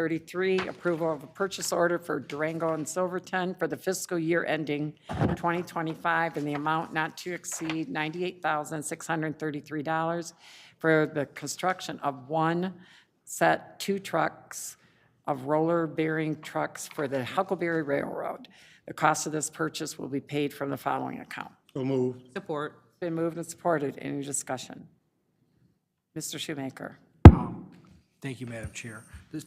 1933, approval of a purchase order for Durango and Silverton for the fiscal year ending 2025 in the amount not to exceed $98,633 for the construction of one set two trucks of roller bearing trucks for the Huckleberry Railroad. The cost of this purchase will be paid from the following account. So moved. Support. Been moved and supported. Any discussion? Mr. Shoemaker? Thank you, Madam Chair. This,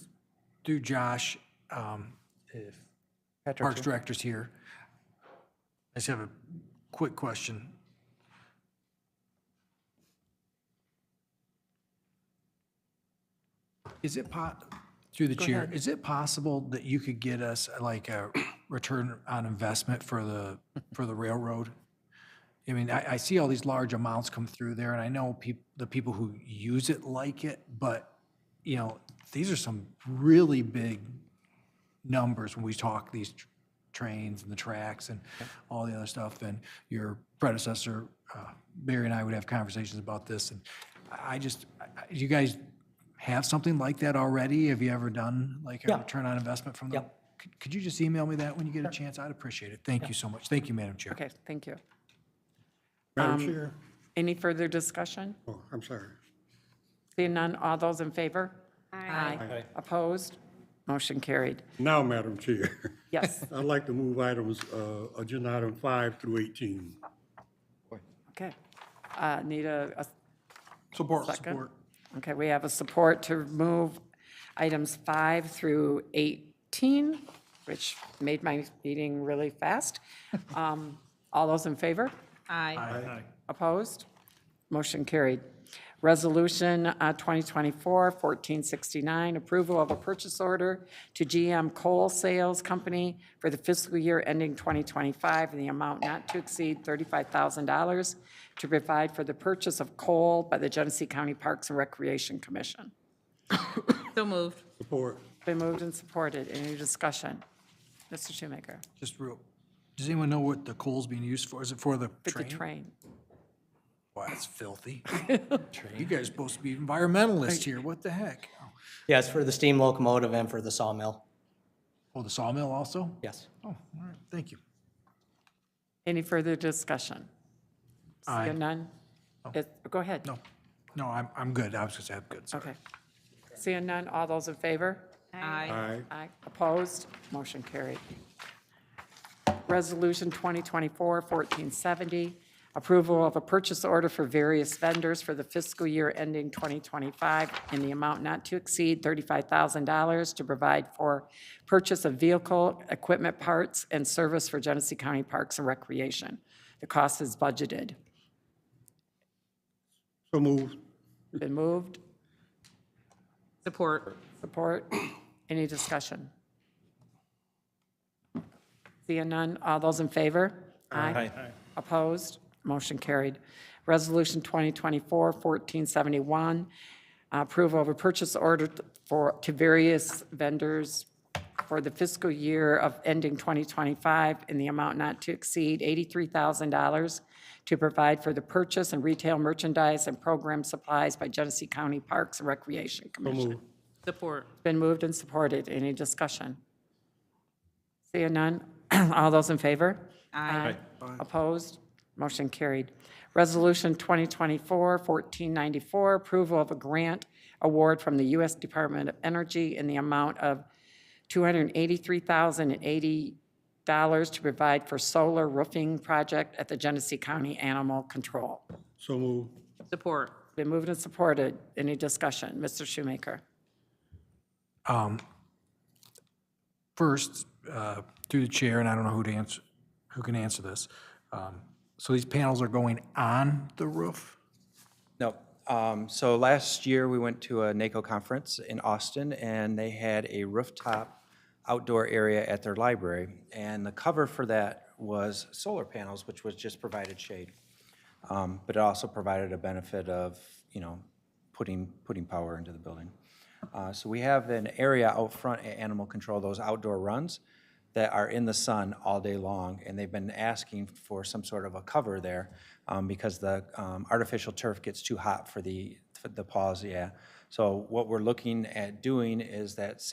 through Josh, um, if Parks Director's here, I just have a quick question. Is it po, through the chair, is it possible that you could get us like a return on investment for the, for the railroad? I mean, I, I see all these large amounts come through there, and I know peop, the people who use it like it, but, you know, these are some really big numbers when we talk these tr- trains and the tracks and all the other stuff. And your predecessor, uh, Barry and I would have conversations about this, and I I just, I- I- you guys have something like that already? Have you ever done like a return on investment from them? Could- Could you just email me that when you get a chance? I'd appreciate it. Thank you so much. Thank you, Madam Chair. Okay, thank you. Madam Chair, Any further discussion? oh, I'm sorry. Seeing none, all those in favor? Aye. Opposed? Motion carried. Now, Madam Chair, Yes, I'd like to move items, uh, agenda item five through 18. okay. Uh, Need a, a- Support. Second. Support. okay, we have a support to move items five through 18, which made my meeting really fast. Um, All those in favor? Aye. Opposed? Motion carried. Resolution uh, 2024-1469, approval of a purchase order to GM Coal Sales Company for the fiscal year ending 2025 in the amount not to exceed $35,000 to provide for the purchase of coal by the Genesee County Parks and Recreation Commission. So moved. Support. Been moved and supported. Any discussion? Mr. Shoemaker? Just real, does anyone know what the coal's being used for? Is it for the With the train? train. Wow, that's filthy. You guys supposed to be environmentalists here, what the heck? Yes, for the steam locomotive and for the sawmill, Oh, the sawmill also? yes. Oh, all right, thank you. Any further discussion? Aye. Oh. Seeing none? It- Go ahead. No, no, I'm, I'm good, I was gonna say I'm good, sorry. Okay. Seeing none, all those in favor? Aye. Aye. Aye. Opposed? Motion carried. Resolution 2024-1470, approval of a purchase order for various vendors for the fiscal year ending 2025 in the amount not to exceed $35,000 to provide for purchase of vehicle, equipment parts, and service for Genesee County Parks and Recreation. The cost is budgeted. So moved. Been moved? Support. Support? Any discussion? Seeing none, all those in favor? Aye. Opposed? Motion carried. Resolution 2024-1471, approval of a purchase order for, to various vendors for the fiscal year of ending 2025 in the amount not to exceed $83,000 to provide for the purchase and retail merchandise and program supplies by Genesee County Parks and Recreation So Commission. moved. Support. Been moved and supported. Any discussion? Seeing none. All those in favor? Aye. Opposed? Motion carried. Resolution 2024-1494, approval of a grant award from the U.S. Department of Energy in the amount of $283,080 to provide for solar roofing project at the Genesee County Animal Control. So moved. Support. Been moved and supported. Any discussion? Mr. Shoemaker? First, uh, through the chair, and I don't know who to answer, who can answer this. Um, So these panels are going on the roof? No. Um, So last year, we went to a NACO conference in Austin, and they had a rooftop outdoor area at their library. And the cover for that was solar panels, which was just provided shade. Um, But it also provided a benefit of, you know, putting, putting power into the building. Uh, So we have an area out front at Animal Control, those outdoor runs that are in the sun all day long, and they've been asking for some sort of a cover there um, because the um, artificial turf gets too hot for the, for the paws, yeah. So what we're looking at doing is that